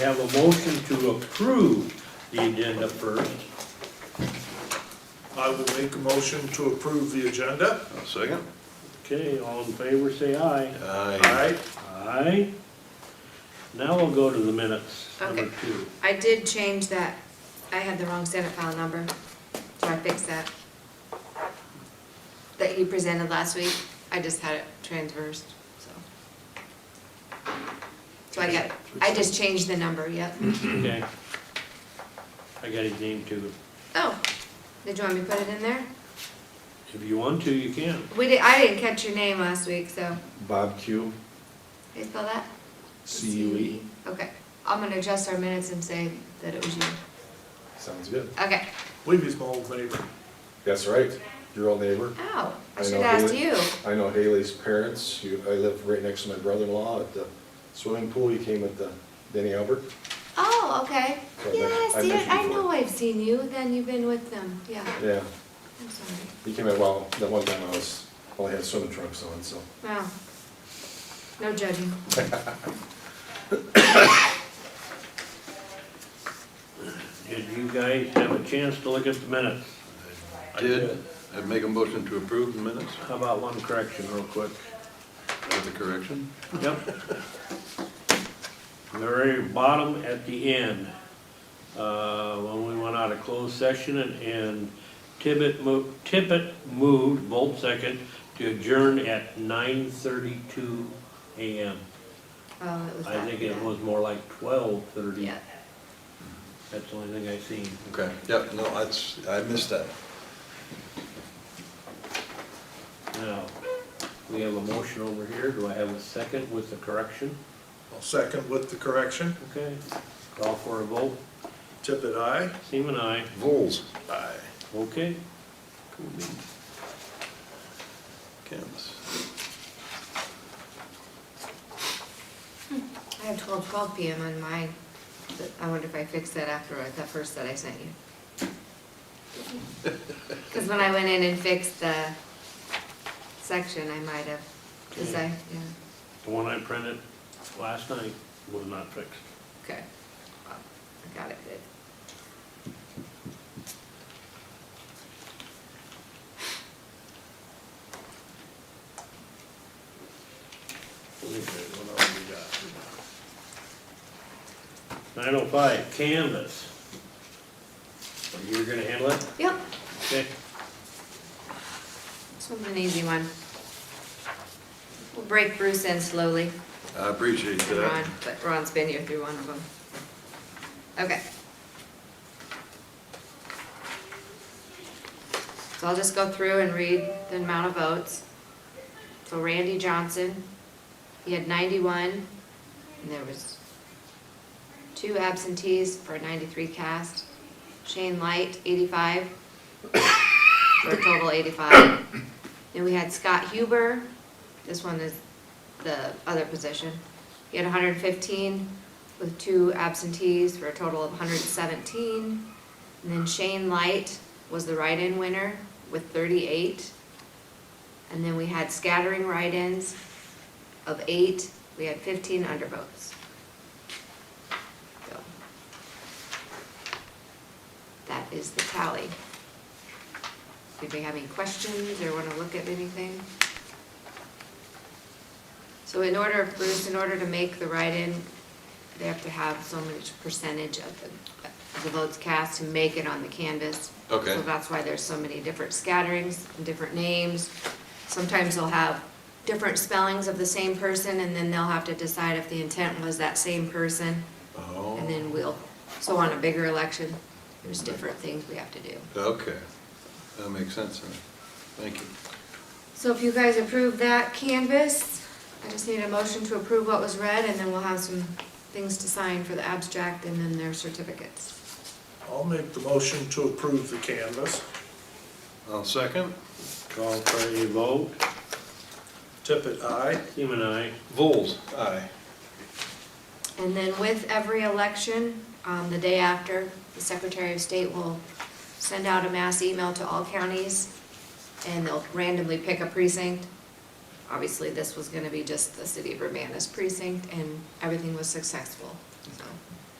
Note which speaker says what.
Speaker 1: Have a motion to approve the agenda first.
Speaker 2: I will make a motion to approve the agenda.
Speaker 3: I'll Second?
Speaker 1: Okay, all in favor, say aye.
Speaker 3: Aye.
Speaker 2: Aye.
Speaker 1: Aye. Now we'll go to the minutes, number
Speaker 4: Okay.
Speaker 1: two.
Speaker 4: I did change that, I had the wrong Senate file number, so I fixed that. That you presented last week, I just had it transversed, so. So I got, I just changed the number, yep.
Speaker 1: Okay. I got his name too.
Speaker 4: Oh, did you want me to put it in there?
Speaker 1: If you want to, you can.
Speaker 4: We did, I didn't catch your name last week, so, how
Speaker 3: Bob Q,
Speaker 4: you spell that?
Speaker 3: C U E.
Speaker 4: Okay, I'm gonna adjust our minutes and say that it was you.
Speaker 3: Sounds good.
Speaker 4: Okay,
Speaker 2: Believe he's my old neighbor.
Speaker 3: That's right, your old neighbor.
Speaker 4: ow, I
Speaker 3: I
Speaker 4: should've
Speaker 3: know,
Speaker 4: asked
Speaker 3: really.
Speaker 4: you.
Speaker 3: I know Haley's parents, you, I live right next to my brother-in-law at the swimming pool, you came with the Denny Albert.
Speaker 4: Oh, okay.
Speaker 3: So I met-
Speaker 4: Yes,
Speaker 3: I met
Speaker 4: yeah,
Speaker 3: you
Speaker 4: I
Speaker 3: before.
Speaker 4: know I've seen you, then you've been with them, yeah,
Speaker 3: Yeah,
Speaker 4: I'm sorry.
Speaker 3: he came at, well, that one time I was, only had swimming trunks on, so.
Speaker 4: Wow. No judging.
Speaker 1: Did you guys have a chance to look at the minutes? I
Speaker 5: Did, I make a motion to approve the minutes
Speaker 1: How about one correction real quick?
Speaker 5: with the correction?
Speaker 1: Yep. The Very bottom at the end, uh, when we went out of closed session and- and Tippett moved, Tippett moved, Volt second, to adjourn at nine thirty-two AM.
Speaker 4: Oh, it was
Speaker 1: I
Speaker 4: that,
Speaker 1: think it
Speaker 4: yeah.
Speaker 1: was more like twelve thirty.
Speaker 4: Yeah.
Speaker 1: That's the only thing I seen.
Speaker 5: Okay, yep, no, that's, I missed that.
Speaker 1: Now, we have a motion over here. Do I have a second with the correction?
Speaker 2: I'll second with the correction.
Speaker 1: Okay. Call for a vote.
Speaker 2: Tippit, aye.
Speaker 1: Seaman, aye.
Speaker 5: Voles.
Speaker 2: Aye.
Speaker 1: Okay.
Speaker 5: Cool beans. Campbell's.
Speaker 4: I have twelve, twelve PM on mine. But I wonder if I fixed that after I- that first that I sent you. Because when I went in and fixed the section, I might have, because I, yeah,
Speaker 1: The one I printed last night was not fixed.
Speaker 4: okay. Well, I got it good.
Speaker 2: Okay, what else we got?
Speaker 1: Nine oh five, canvas. Are you gonna handle it?
Speaker 4: Yep,
Speaker 1: Okay.
Speaker 4: this one's an easy one. We'll break Bruce in slowly.
Speaker 5: I appreciate
Speaker 4: and Ron,
Speaker 5: that.
Speaker 4: but Ron's been here through one of them. Okay. So I'll just go through and read the amount of votes. So Randy Johnson, he had ninety-one, and there was two absentees for a ninety-three cast. Shane Light, eighty-five, for a total eighty-five. Then we had Scott Huber, this one is the other position. He had hundred and fifteen with two absentees for a total of hundred and seventeen. And then Shane Light was the write-in winner with thirty-eight. And then we had scattering write-ins of eight. We had fifteen undervotes. So That is the tally. Did we have any questions or wanna look at anything? So in order, Bruce, in order to make the write-in, they have to have so much percentage of the, of the votes cast to make it on the canvas.
Speaker 5: Okay.
Speaker 4: So that's why there's so many different scatterings, and different names. Sometimes they'll have different spellings of the same person, and then they'll have to decide if the intent was that same person. And
Speaker 5: Oh,
Speaker 4: then we'll, so on a bigger election, there's different things we have to do.
Speaker 5: okay, that makes sense then. Thank you.
Speaker 4: So if you guys approve that canvas, I just need a motion to approve what was read, and then we'll have some things to sign for the abstract and then their certificates.
Speaker 2: I'll make the motion to approve the canvas.
Speaker 5: I'll second.
Speaker 1: Call for a vote.
Speaker 2: Tippit, aye.
Speaker 1: Seaman, aye.
Speaker 5: Voles. Aye.
Speaker 4: And then with every election, um, the day after, the Secretary of State will send out a mass email to all counties, and they'll randomly pick a precinct. Obviously, this was gonna be just the city of Urbana's precinct, and everything was successful, so.